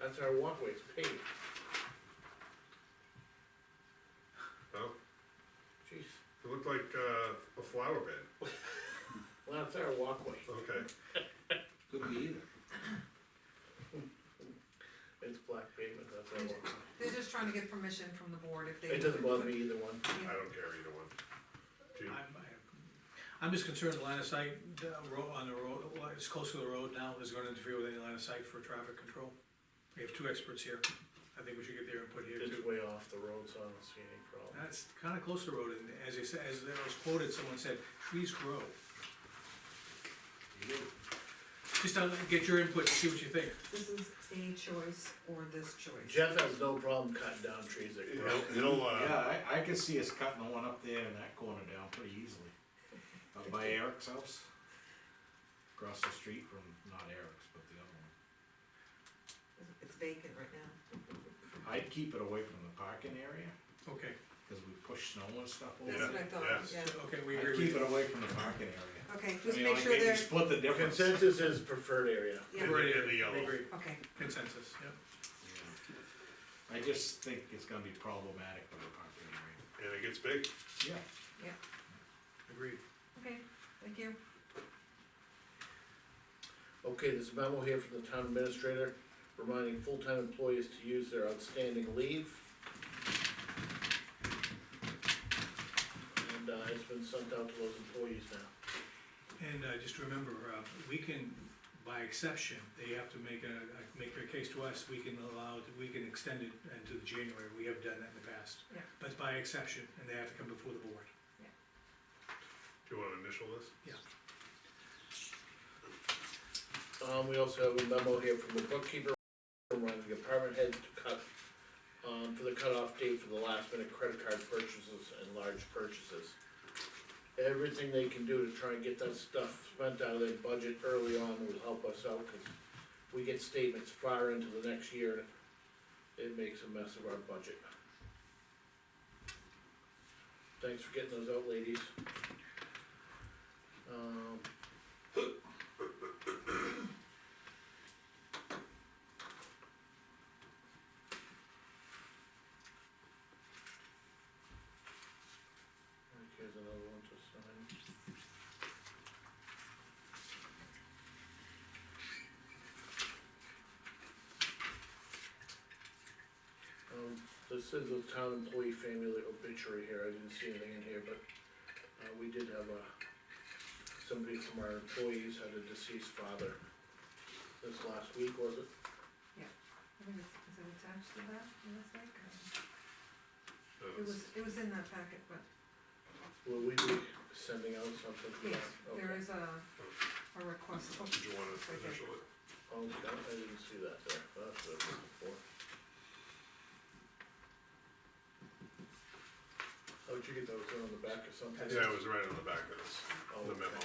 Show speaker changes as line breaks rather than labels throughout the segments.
That's our walkway, it's paved,
Well,
jeez,
it looked like, uh, a flower bed,
well, that's our walkway,
okay.
Could be either.
it's black pavement, that's our walkway.
They're just trying to get permission from the board if they.
It doesn't bother me either one.
I don't care either one. Do you?
I'm- I'm just concerned the line of sight, the road, on the road, well, it's close to the road now, is gonna interfere with any line of sight for traffic control. We have two experts here, I think we should get their input here
It's
too.
way off the road, so I don't see any problem.
That's kinda close to the road, and as you said, as it was quoted, someone said, trees grow. Just uh, get your input, see what you think.
This is a choice or this choice.
Jeff has no problem cutting down trees that grow.
It'll- It'll, uh,
Yeah, I, I could see us cutting the one up there in that corner down pretty easily. Up by Eric's house. Across the street from, not Eric's, but the other
It's vacant right now.
one. I'd keep it away from the parking area,
Okay,
cause we push snow and stuff over
That's what
there.
I thought,
yes.
yeah.
okay, we agree
I'd
with
keep
you.
it away from the parking area.
Okay,
I
just
mean,
make
like,
sure
if you
they're,
Split the difference.
Consensus is preferred area.
yeah,
Right.
okay,
in the yellow.
Agree. Consensus, yeah.
Yeah. I just think it's gonna be problematic for the parking area.
and it gets big,
Yeah.
Agreed.
okay, thank you.
Okay, there's a memo here from the town administrator reminding full-time employees to use their outstanding leave. And, uh, it's been sent out to those employees now.
And uh, just remember, uh, we can, by exception, they have to make a, a- make their case to us, we can allow, it- we can extend it into January, we have done that in the past.
Yeah.
But by exception, and they have to come before the board.
do you wanna initial this?
Um, we also have a memo here from the bookkeeper reminding the department heads to cut, um, for the cutoff date for the last minute credit card purchases and large purchases. Everything they can do to try and get that stuff spent out of their budget early on will help us out, cause we get statements far into the next year, it makes a mess of our budget. Thanks for getting those out, ladies. Um, here's another one to sign. Um, this is a town employee family obituary here, I didn't see anything in here, but, uh, we did have a, somebody from our employees had a deceased father this last week, was it?
I think it's- Is it attached to that, in this deck? Um,
No,
It
it's-
was, it was in that packet, but
Will we be sending out something for that?
yes, there
Okay.
is a, a request. Oh,
Did you wanna
right there.
initial it?
Okay, Oh, I didn't see that there, that's what I was looking for. How'd you get those, on the back or something?
Yeah, it was right on the back of this,
Oh,
the
okay.
memo.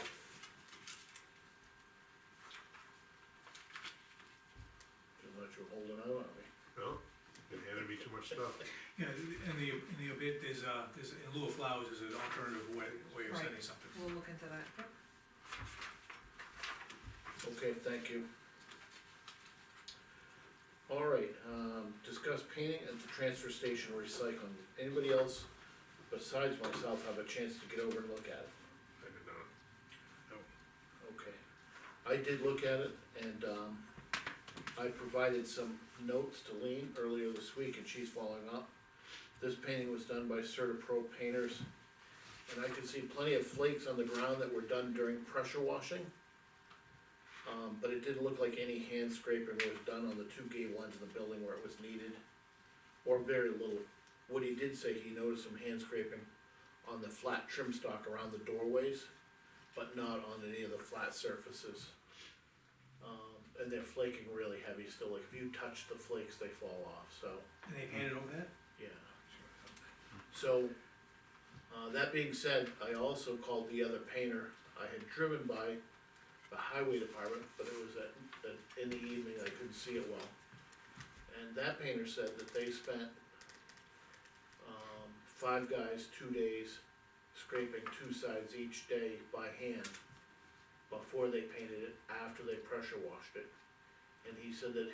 Just thought you were holding out on me.
No, it handed me too much stuff.
Yeah, and the, and the obit, there's a, there's, in lieu of flowers, is an alternative way, way of sending
Right.
something.
We'll look into that, yep.
Okay, thank you. All right, um, discuss painting at the transfer station recycling. Anybody else besides myself have a chance to get over and look at it?
I did not.
Okay. I did look at it and, um, I provided some notes to Lean earlier this week and she's following up. This painting was done by Certapro Painters. And I could see plenty of flakes on the ground that were done during pressure washing. Um, but it didn't look like any hand scraping was done on the two gable ends of the building where it was needed. Or very little. Woody did say he noticed some hand scraping on the flat trim stock around the doorways but not on any of the flat surfaces. Um, and they're flaking really heavy still, like if you touch the flakes, they fall off, so,
And they handed over that?
yeah. So, uh, that being said, I also called the other painter, I had driven by the highway department, but it was at, at, in the evening, I couldn't see it well. And that painter said that they spent, um, five guys, two days, scraping two sides each day by hand before they painted it, after they pressure washed it. And he said that